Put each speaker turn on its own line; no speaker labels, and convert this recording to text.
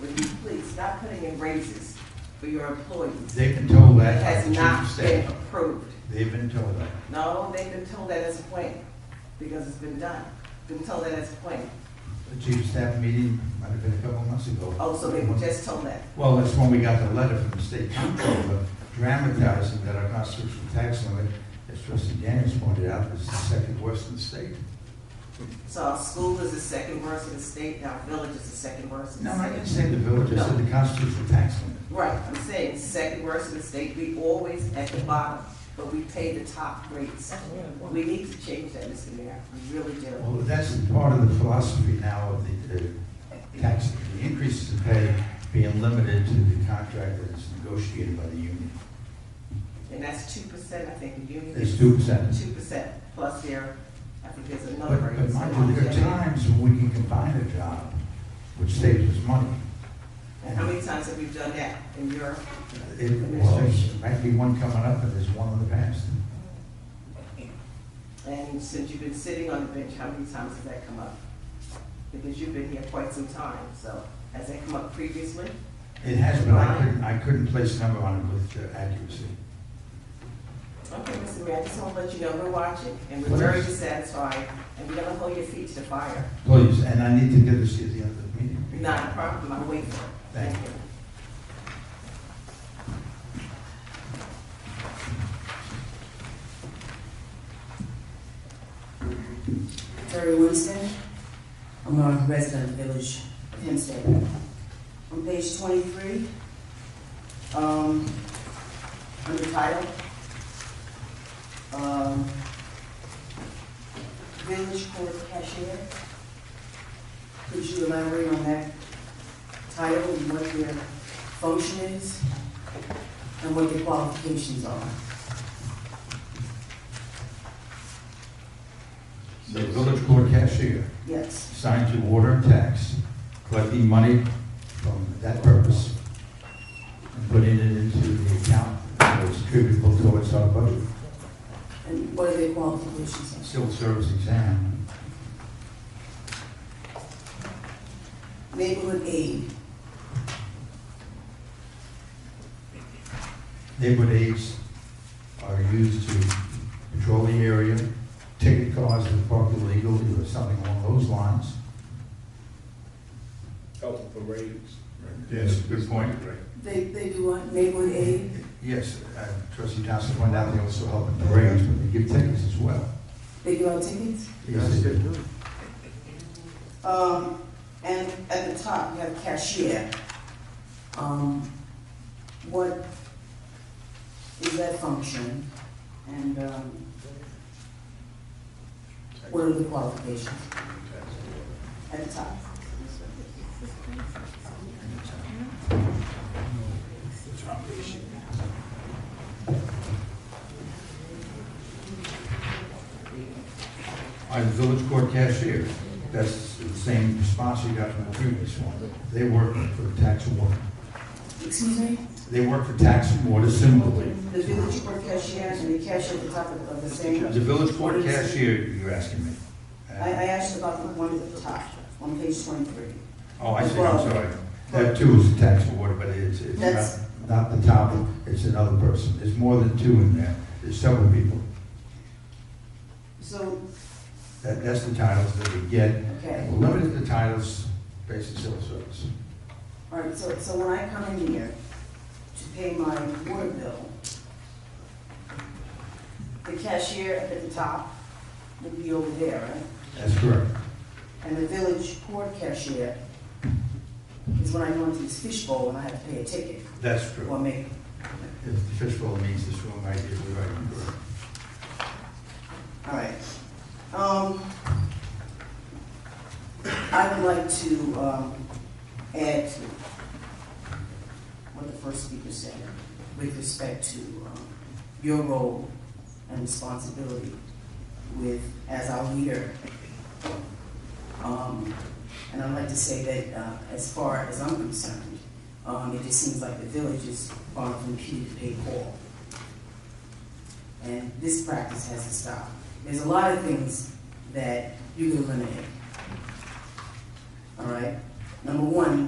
would you please stop putting in raises for your employees?
They've been told
It
that by
has
the chief
not
of
been
staff.
approved.
They've been told that.
No, they've been told that as a plan, because it's been done. Been told that as a plan.
The chief of staff meeting might have been a couple months ago.
Oh, so they were just told that.
Well, that's when we got the letter from the state comptroller dramatizing that our constitutional tax limit, as trustee Daniels pointed out, is the second worst in the state.
So our school is the second worst in the state, and our village is the second worst in
No,
the
I
state.
didn't say the village, I said the constitutional tax limit.
Right, I'm saying second worst in the state, we always at the bottom, but we pay the top rates. We need to change that, Mr. Mayor, we really do.
Well, that's part of the philosophy now of the uh, tax, the increases in pay being limited to the contract that's negotiated by the union.
And that's two percent, I think, the union.
It's two percent.
Two percent, plus their, I think there's another
But,
rate.
but mind you, there are times when we can combine a job, which saves us money.
And how many times have we done that in your,
It, well, there's- might be one coming up, and there's one in the past.
and since you've been sitting on the bench, how many times has that come up? Because you've been here quite some time, so has that come up previously?
It has, but I couldn't, I couldn't place a number on it with uh, accuracy.
Okay, Mr. Mayor, I just want to let you know we're watching and we're very dissatisfied and we're gonna hold your feet to the fire.
Please, and I need to get this at the end of the meeting.
Not a problem, I'll wait for it.
Thank you.
Terry Winston. I'm a resident of Village Hempstead. On page twenty-three, um, under title, um, Village Court Cashier. Could you elaborate on that title and what their function is and what their qualifications are?
The village court cashier.
Yes,
assigned to water and tax, collecting money from that purpose, and putting it into the account that was attributable towards our budget.
and what are their qualifications? are?
Civil service exam,
Neighborhood aid.
neighborhood aids are used to patrol the area, ticket cars that park illegally or something along those lines.
helping for raises.
Yes, good point.
They, they do what, neighborhood aid?
Yes, uh, trustee Johnson pointed out they also help in parades, but they give tickets as well.
They give out tickets?
Yes, they do.
Um, and at the top, you have cashier. Um, what is that function? And, um, what are the qualifications at the top?
All right, the village court cashier, that's the same response you got from the previous one. They work for tax and water.
Excuse me?
They work for tax and water similarly.
The village court cashier and the cashier at the top of of the same.
The village court
What is-
cashier, you're asking me?
I, I asked about the one at the top, on page twenty-three.
Oh, I see, I'm sorry. That too is tax and water, but it's, it's
That's-
not- not the top, it's another person. There's more than two in there, there's several people.
So,
That, that's the titles that we get.
okay.
We're limited to titles based on civil service.
All right, so, so when I come in here to pay my water bill, the cashier at the top would be over there, right?
That's correct.
And the village court cashier is when I go into this fishbowl and I have to pay a ticket
That's
or
true.
make,
If the fishbowl means this room, I did, we're right, correct.
all right. Um, I would like to, um, add to what the first speaker said with respect to um, your role and responsibility with, as our leader. Um, And I'd like to say that uh, as far as I'm concerned, um, it just seems like the village is far from Peter to pay Paul. And this practice has to stop. There's a lot of things that you can eliminate. All right? Number one,